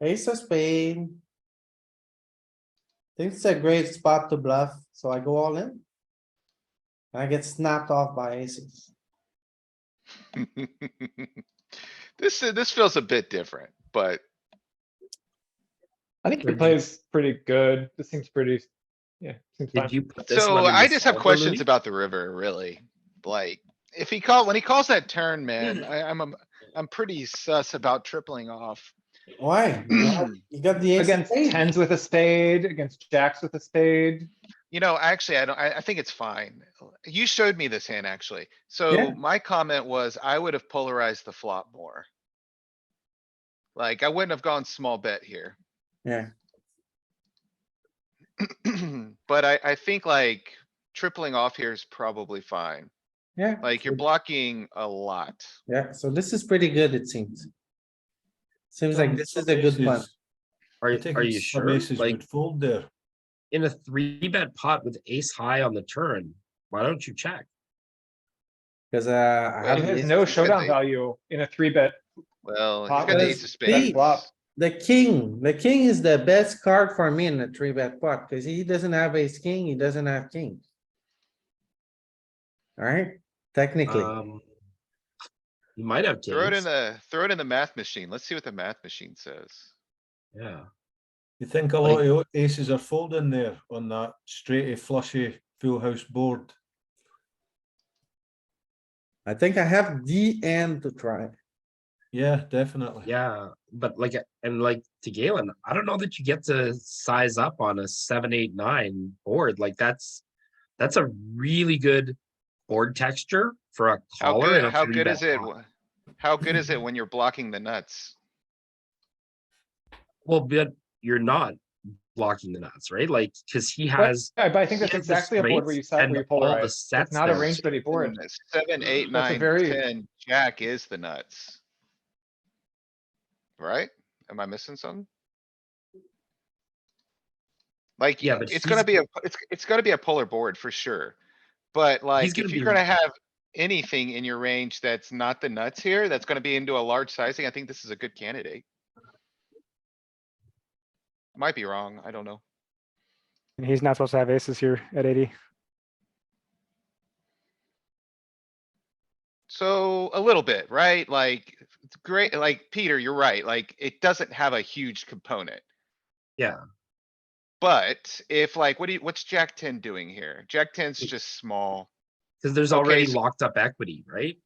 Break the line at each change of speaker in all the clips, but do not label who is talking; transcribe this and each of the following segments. ace of spade. Think it's a great spot to bluff, so I go all in. And I get snapped off by aces.
This, uh, this feels a bit different, but
I think he plays pretty good. This seems pretty, yeah, seems fine.
Did you put this
so
one in
I
the
just have
solver,
questions
Louis?
about the river, really. Like, if he call, when he calls that turn, man, I, I'm, I'm- I'm pretty sus about tripling off.
Why? You got- You got the ace. of
Against
spade.
tens with a spade, against jacks with a spade.
You know, actually, I don't, I, I think it's fine. You showed me this hand, actually.
Yeah.
So my comment was I would have polarized the flop more. Like, I wouldn't have gone small bet here.
Yeah.
But I, I think like tripling off here is probably fine.
Yeah.
Like, you're blocking a lot.
Yeah, so this is pretty good, it seems. Seems like this is a good one.
Are,
I
you-
think
are you
it's some
sure?
aces
Like,
would fold there.
in a three bet pot with ace high on the turn, why don't you check?
Cause uh. I
Well,
It
have
has
ace-
no
Could
showdown
be.
value in a three bet.
Well, he's
Pop
got the
is
ace of
big.
spades.
Flop.
The king, the king is the best card for me in the three bet pot, cause he doesn't have ace king, he doesn't have king. Alright, technically,
Um, You might have
Throw it in
kings,
the, throw it in the math machine. Let's see what the math machine says.
yeah.
You think a lot of your aces are folding there on that straighty flushy full house board?
I think I have the end to try.
Yeah, definitely.
Yeah, but like, and like to Galen, I don't know that you get to size up on a seven, eight, nine board. Like that's, that's a really good board texture for a
How
caller.
good, how good is it? wh- How good is it when you're blocking the nuts?
Well, but you're not blocking the nuts, right? Like, cause he has.
Yeah, but I think that's
he has the
exactly a board where
straights
you side
and
where you
all the
polarize. It's
sets
not a
there.
range pretty board.
Goodness, Seven, eight,
That's a
nine,
very-
ten, jack is the nuts. Right? Am I missing something? Like,
Yeah,
yeah,
but
it's gonna
he's-
be a, it's, it's gonna be a polar board for sure. But like,
gonna
if you're
be-
gonna have anything in your range that's not the nuts here, that's gonna be into a large sizing, I think this is a good candidate. Might be wrong, I don't know.
And he's not supposed to have aces here at eighty.
So a little bit, right? Like, it's great, like, Peter, you're right, like, it doesn't have a huge component.
Yeah.
But if like, what do you, what's Jack ten doing here? Jack ten's just small.
Cause there's
Okay,
already
so-
locked up equity, right?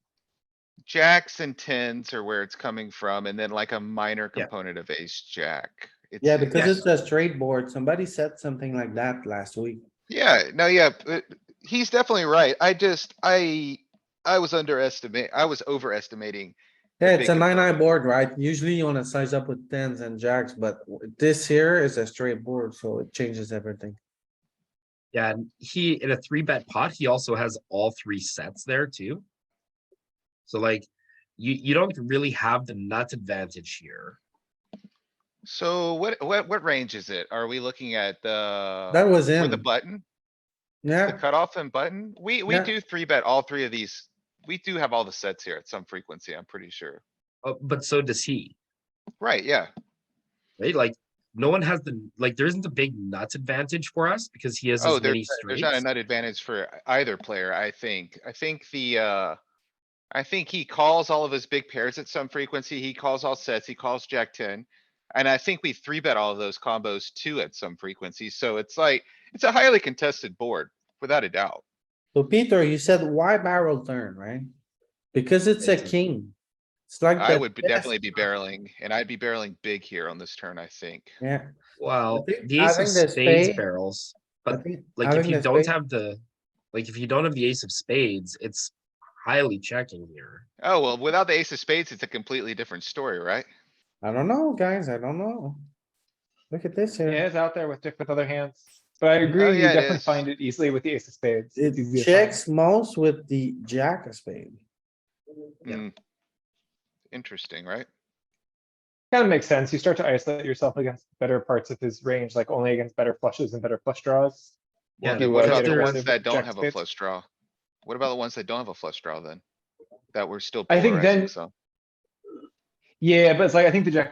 Jacks and tens are where it's coming from, and then like a minor
Yeah.
component of ace jack. It's-
Yeah,
it's-
because it's a straight board, somebody said something like that last week.
Yeah, no, yeah, but he's definitely right. I just, I, I was underestimating, I was overestimating.
Yeah, it's a
big
nine eye
component.
board, right? Usually you wanna size up with tens and jacks, but w- this here is a straight board, so it changes everything.
Yeah, and he in a three bet pot, he also has all three sets there too. So like, you you don't really have the nuts advantage here.
So what, what, what range is it? Are we looking at the?
Uh,
That was
With the
in,
button, the
yeah,
cutoff and button, we, we
Yeah.
do three bet all three of these. We do have all the sets here at some frequency, I'm pretty sure.
Uh, but so does he,
Right, yeah,
right? Like, no one has the like. There isn't a big nuts advantage for us because he has
Oh,
as many
there's, there's not a
straights.
nut advantage for either player, I think. I think the, uh. I think he calls all of his big pairs at some frequency. He calls all sets. He calls jack ten. And I think we three bet all of those combos too at some frequency. So it's like, it's a highly contested board, without a doubt.
so Peter, you said why barrel turn, right? Because it's a
It's a-
king. It's like.
I
the
would be-
best-
definitely be barreling and I'd be barreling big here on this turn, I think.
Yeah.
Well,
think
the ace of
having the
spades
spade-
barrels,
I
But,
think
like if
having
you
the
don't
spade-
have the, like if you don't have the ace of spades, it's highly checking here.
Oh, well, without the ace of spades, it's a completely different story, right?
I don't know, guys, I don't know. Look at this
It
here.
is out there with diff- with other hands, but
Oh,
I agree, you
yeah, it
definitely
is.
find it easily with the ace of spades. It's easy
It
to find.
checks most with the jack of spade.
Yeah.
Hmm. Interesting, right?
Kind of makes sense. You start to isolate yourself against better parts of his range, like only against better flushes and better flush draws.
Yeah,
he
And What
was
about
getting
the ones
aggressive
that
with
don't
jack
have a
spades.
flush draw? What about the ones that don't have a flush draw then? That we're still
I think then-
polarizing some?
Yeah, but it's like, I think the jack